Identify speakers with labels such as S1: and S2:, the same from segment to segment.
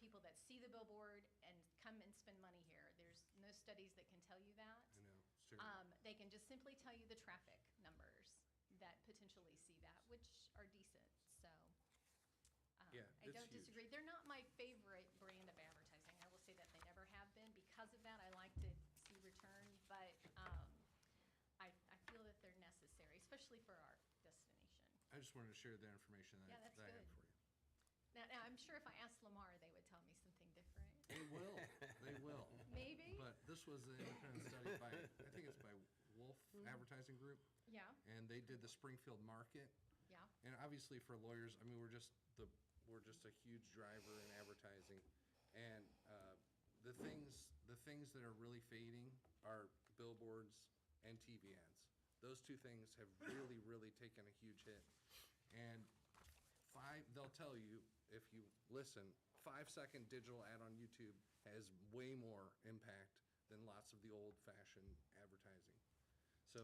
S1: people that see the billboard and come and spend money here. There's no studies that can tell you that.
S2: I know, sure.
S1: Um, they can just simply tell you the traffic numbers that potentially see that, which are decent, so. um,
S2: Yeah,
S1: I
S2: it's
S1: don't
S2: huge.
S1: disagree. They're not my favorite brand of advertising. I will say that they never have been. Because of that, I like to see return, but, um, I, I feel that they're necessary, especially for our destination.
S2: I just wanted to share that information that
S1: Yeah,
S2: I-
S1: that's
S2: that I have
S1: good.
S2: for you.
S1: Now, now, I'm sure if I asked Lamar, they would tell me something different.
S2: They will, they will.
S1: Maybe?
S2: But this was an independent study by, I think it's by Wolf
S1: Mm-hmm.
S2: Advertising Group,
S1: Yeah,
S2: and they did the Springfield Market.
S1: yeah,
S2: And obviously for lawyers, I mean, we're just the, we're just a huge driver in advertising. And uh, the things, the things that are really fading are billboards and TV ads. Those two things have really, really taken a huge hit. And five, they'll tell you, if you listen, five-second digital ad on YouTube has way more impact than lots of the old-fashioned advertising. So,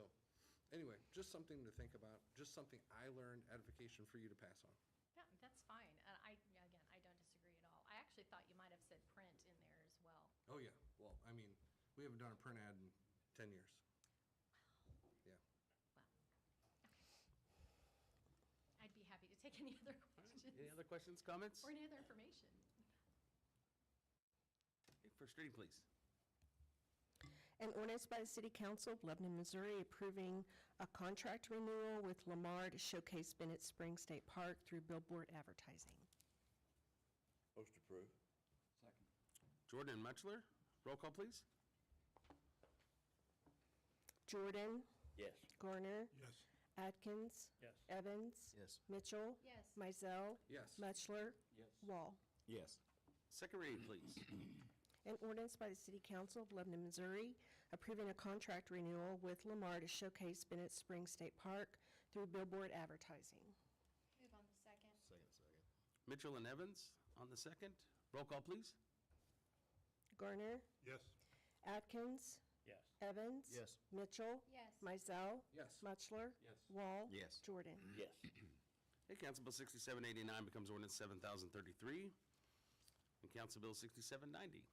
S2: anyway, just something to think about, just something I learned, edification for you to pass on.
S1: yeah, that's fine. Uh, I, yeah, again, I don't disagree at all. I actually thought you might have said print in there as well.
S2: Oh, yeah, well, I mean, we haven't done a print ad in ten years. Yeah,
S1: Well, okay. I'd be happy to take any other
S3: Any
S1: questions
S3: other questions, comments?
S1: or any other information.
S3: First reading, please.
S4: An ordinance by the City Council of Lebanon, Missouri approving a contract renewal with Lamar to showcase Bennett Springs State Park through billboard advertising.
S5: Most approved.
S3: Jordan and Mutchler, roll call, please.
S4: Jordan,
S5: Yes.
S4: Garner,
S6: Yes.
S4: Atkins.
S6: Yes.
S4: Evans.
S5: Yes.
S4: Mitchell.
S1: Yes.
S4: Mizell.
S2: Yes.
S4: Mutchler.
S6: Yes.
S4: Wall.
S5: Yes.
S3: Second reading, please.
S4: An ordinance by the City Council of Lebanon, Missouri approving a contract renewal with Lamar to showcase Bennett Springs State Park through billboard advertising.
S1: Move on to second.
S5: Second, second.
S3: Mitchell and Evans on the second. Roll call, please.
S4: Garner,
S6: Yes.
S4: Atkins.
S6: Yes.
S4: Evans.
S5: Yes.
S4: Mitchell.
S1: Yes.
S4: Mizell.
S2: Yes.
S4: Mutchler.
S6: Yes.
S4: Wall.
S5: Yes.
S4: Jordan.
S6: Yes.
S3: Hey, Council Bill 6789 becomes ordinance 7033, and Council Bill 6790.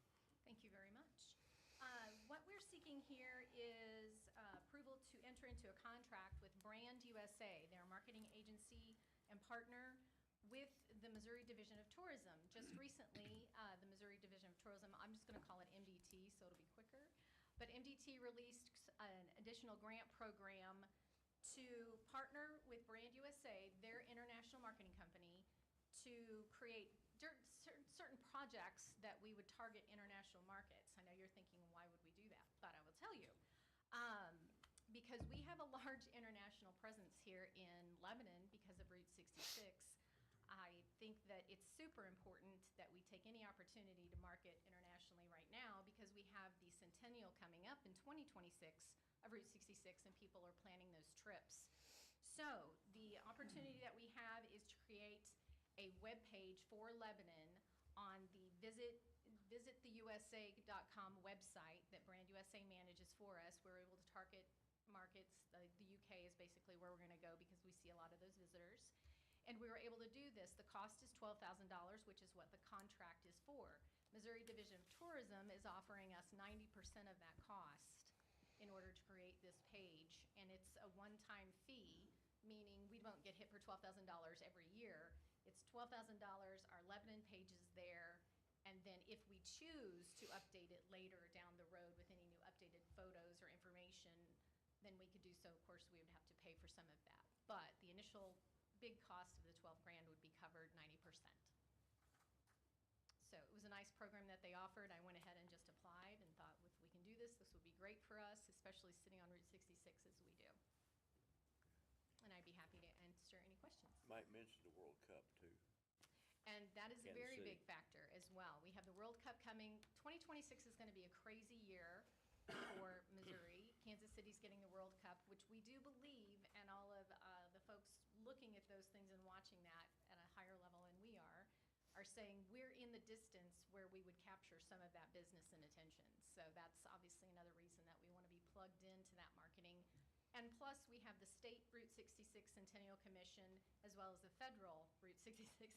S1: Thank you very much. Uh, What we're seeking here is uh, approval to enter into a contract with Brand USA, their marketing agency and partner with the Missouri Division of Tourism. Just recently, uh, the Missouri Division of Tourism, I'm just going to call it MDT, so it'll be quicker, but MDT released an additional grant program to partner with Brand USA, their international marketing company, to create cer- cer- certain projects that we would target international markets. I know you're thinking, why would we do that? But I will tell you. Um, Because we have a large international presence here in Lebanon because of Route 66. I think that it's super important that we take any opportunity to market internationally right now because we have the centennial coming up in 2026 of Route 66 and people are planning those trips. So the opportunity that we have is to create a webpage for Lebanon on the visit visittheusa.com website that Brand USA manages for us. We're able to target markets. The, the UK is basically where we're going to go because we see a lot of those visitors. And we were able to do this. The cost is $12,000, which is what the contract is for. Missouri Division of Tourism is offering us 90% of that cost in order to create this page. And it's a one-time fee, meaning we won't get hit for $12,000 every year. It's $12,000, our Lebanon page is there, and then if we choose to update it later down the road with any new updated photos or information, then we could do so. Of course, we would have to pay for some of that. But the initial big cost of the 12 grand would be covered 90%. So it was a nice program that they offered. I went ahead and just applied and thought if we can do this, this would be great for us, especially sitting on Route 66 as we do. And I'd be happy to answer any questions.
S5: Mike mentioned the World Cup too.
S1: And that is a
S5: Kansas
S1: very
S5: City.
S1: big factor as well. We have the World Cup coming. 2026 is going to be a crazy year for Missouri. Kansas City's getting the World Cup, which we do believe, and all of uh, the folks looking at those things and watching that at a higher level than we are, are saying we're in the distance where we would capture some of that business and attention. So that's obviously another reason that we want to be plugged into that marketing and plus, we have the state Route 66 Centennial Commission, as well as the federal Route 66